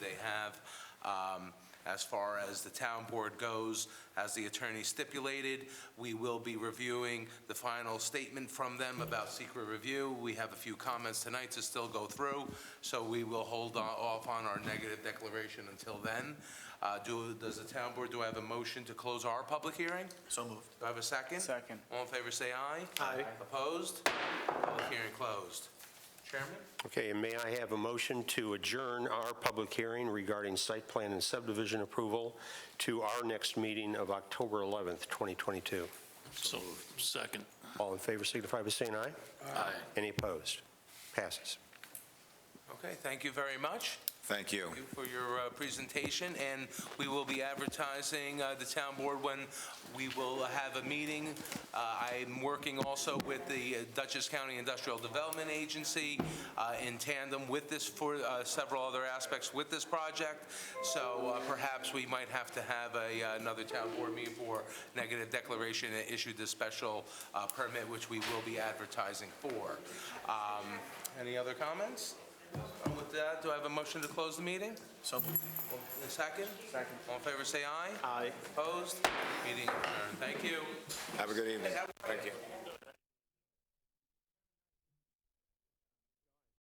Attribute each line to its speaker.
Speaker 1: have. Um, As far as the town board goes, as the attorney stipulated, we will be reviewing the final statement from them about secret review. We have a few comments tonight to still go through, so we will hold on- off on our negative declaration until then. Uh, do- Does the town board, do I have a motion to close our public hearing?
Speaker 2: So moved.
Speaker 1: Do I have a second?
Speaker 2: Second.
Speaker 1: All in favor, say aye.
Speaker 2: Aye.
Speaker 1: Opposed? Public hearing closed. Chairman?
Speaker 3: Okay, and may I have a motion to adjourn our public hearing regarding site plan and subdivision approval to our next meeting of October 11th, 2022?
Speaker 4: So Second.
Speaker 3: All in favor signify by saying aye.
Speaker 4: Aye.
Speaker 3: Any opposed? Passes.
Speaker 1: Okay, thank you very much.
Speaker 5: Thank you.
Speaker 1: Thank you for your uh, presentation, and we will be advertising uh, the town board when we will have a meeting. Uh, I'm working also with the Dutchess County Industrial Development Agency uh, in tandem with this, for uh, several other aspects with this project, so uh, perhaps we might have to have a, uh, another town board meeting for negative declaration and issue this special uh, permit, which we will be advertising for. Um, Any other comments? And With that, do I have a motion to close the meeting?
Speaker 2: So moved.
Speaker 1: A second? Second. All in favor, say aye.
Speaker 2: Aye.
Speaker 1: Opposed? Meeting adjourned. Thank you.
Speaker 5: Have a good evening. Thank you.